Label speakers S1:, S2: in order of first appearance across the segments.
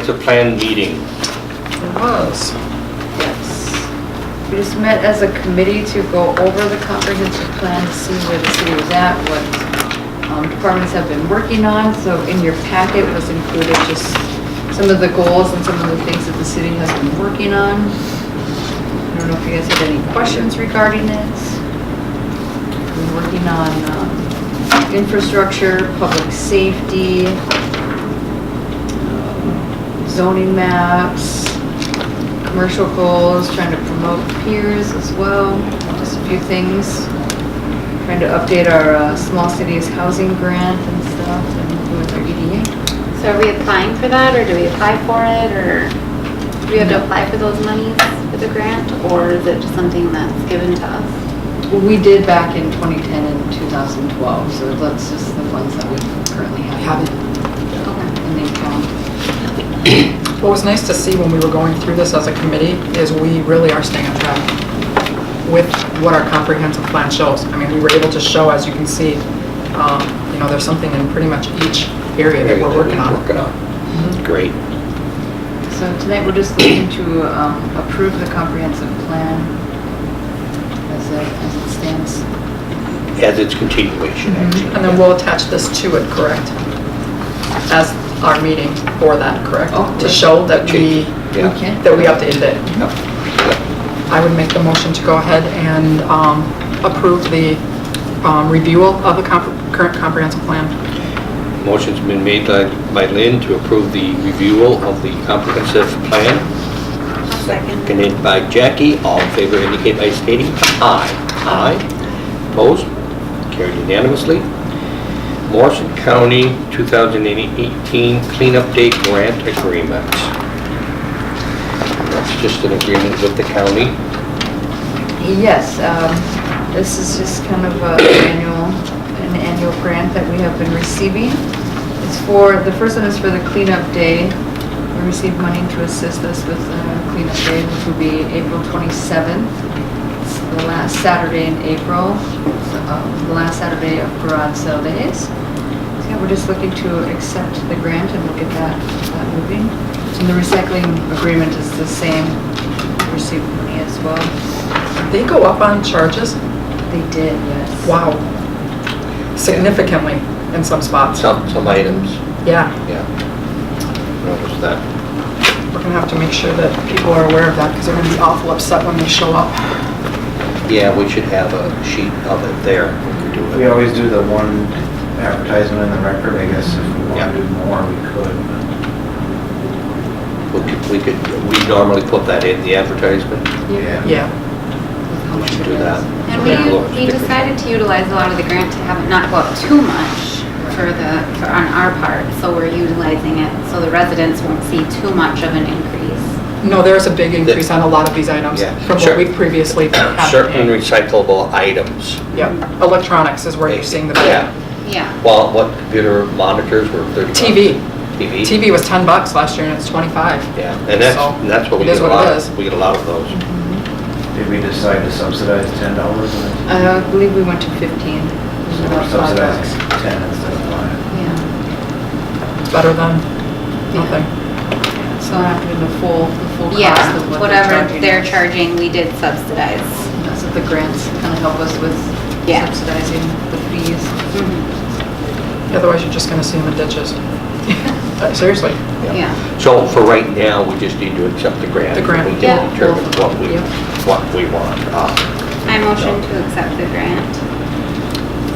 S1: It's a planned meeting.
S2: It was.
S3: Yes. We just met as a committee to go over the comprehensive plan to see where the city was at, what um, departments have been working on. So in your packet was included just some of the goals and some of the things that the city has been working on. I don't know if you guys had any questions regarding it. Been working on um, infrastructure, public safety, zoning maps, commercial goals, trying to promote peers as well, just a few things. Trying to update our uh, small cities housing grant and stuff and with our E EDA.
S4: So are we applying for that, or do we apply for it, or do we have to apply for those monies for the grant, or is it just something that's given to us?
S3: Well, we did back in 2010 and 2012, so that's just the ones that we currently have.
S4: Okay.
S3: And they count.
S2: What was nice to see when we were going through this as a committee is we really are staying on track with what our comprehensive plan shows. I mean, we were able to show, as you can see, um, you know, there's something in pretty much each area that we're working on. Mm-hmm.
S1: Working on. Great.
S3: So tonight, we're just looking to um, approve the comprehensive plan as it, as it stands.
S1: As its continuation, actually.
S2: Mm-hmm. And then we'll attach this to it, correct? As our meeting for that, correct?
S3: Oh,
S2: To
S3: right.
S2: show that we,
S1: Yeah.
S3: Okay.
S2: that we updated it.
S1: Yeah.
S2: I would make the motion to go ahead and um, approve the um, review of the comp- current comprehensive plan.
S1: Motion's been made by by Lynn to approve the review of the comprehensive plan,
S4: second.
S1: seconded by Jackie. All in favor indicate by stating aye. Aye. Opposed? Carried unanimously. Morrison County 2018 Cleanup Day Grant Agreement. That's just an agreement with the county.
S3: Yes, um, this is just kind of a annual, an annual grant that we have been receiving. It's for, the first one is for the cleanup day. We received money to assist us with uh, cleanup day, which will be April 27th. It's the last Saturday in April, It's, um, the last Saturday of garage sale days. So yeah, we're just looking to accept the grant and look at that, that moving. And the recycling agreement is the same, We received money as well.
S2: They go up on charges?
S3: They did, yes.
S2: Wow. Significantly in some spots.
S1: Some some items,
S2: Yeah,
S1: yeah. Notice that.
S2: we're going to have to make sure that people are aware of that because they're going to be awful upset when they show up.
S1: Yeah, we should have a sheet of it there when we do
S5: We
S1: it.
S5: always do the one advertisement in the record, I guess if we want to do more, we could.
S1: We could- We could, we normally put that in the advertisement.
S5: Yeah.
S2: Yeah,
S3: How
S1: We
S3: much
S1: should
S3: it
S1: do that.
S3: is.
S4: And we, we decided to utilize a lot of the grant to have it not go up too much for the, for on our part, so we're utilizing it, so the residents won't see too much of an increase.
S2: no, there's a big increase on a lot of these items
S1: Yeah,
S2: from
S1: sure.
S2: what we've previously had.
S1: uh, Certain recyclable items.
S2: Yeah, electronics is where you're seeing the
S1: Yeah.
S2: big.
S4: Yeah.
S1: Well, what computer monitors were 35?
S2: TV.
S1: TV?
S2: TV was 10 bucks last year and it's 25.
S1: Yeah, and that's,
S2: So,
S1: and that's what we
S2: it is
S1: get a
S2: what it
S1: lot,
S2: is. Mm-hmm.
S1: of. we get a lot of those.
S5: Did we decide to subsidize ten dollars or
S3: Uh, I believe we went to 15. It was about five
S5: subsidizing
S3: bucks.
S5: ten instead of five?
S4: Yeah.
S2: Better than nothing.
S3: So I have to do the full, the full cost of
S4: Yeah,
S3: what they're
S4: whatever
S3: charging.
S4: they're charging, we did subsidize.
S3: That's what the grants kind of help us with
S4: Yeah.
S3: subsidizing the fees.
S4: Mhm.
S2: Otherwise, you're just going to see them in ditches. Uh, Seriously.
S4: Yeah.
S1: So for right now, we just need to accept the grant.
S2: The grant.
S1: We can
S4: Yeah.
S1: determine what we,
S3: Yep.
S1: what we want. Uh,
S4: I motion to accept the grant.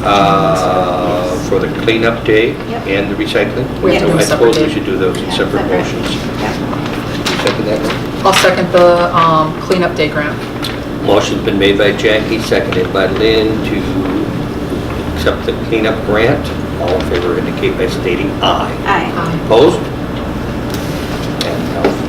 S1: uh, For the cleanup day
S4: Yep.
S1: and the recycling.
S2: We have to
S1: So
S2: do
S1: I
S2: a separate
S1: suppose we
S2: day.
S1: should do those in
S4: Yeah,
S1: separate motions.
S4: Yeah.
S1: Second that one?
S2: I'll second the um, cleanup day grant.
S1: Motion's been made by Jackie, seconded by Lynn to accept the cleanup grant. All in favor indicate by stating aye.
S4: Aye.
S2: Um,
S1: Opposed?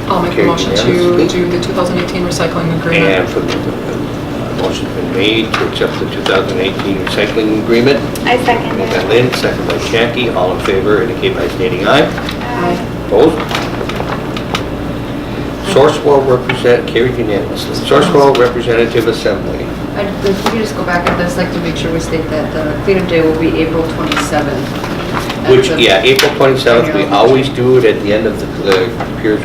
S2: I'll make a motion to do the 2018 recycling
S1: And
S2: agreement.
S1: for the, uh, motion's been made to accept the 2018 recycling agreement.
S4: I second
S1: Made by
S4: it.
S1: Lynn, seconded by Jackie. All in favor indicate by stating aye.
S4: Aye.
S1: Opposed? Sourcewell represent, carried unanimously. Sourcewell Representative Assembly.
S3: I- Uh, If we could just go back at this, like to make sure we state that the cleanup day will be April 27th.
S1: Which,
S3: That's the-
S1: yeah, April 27th, we always do it at the end of the the Piers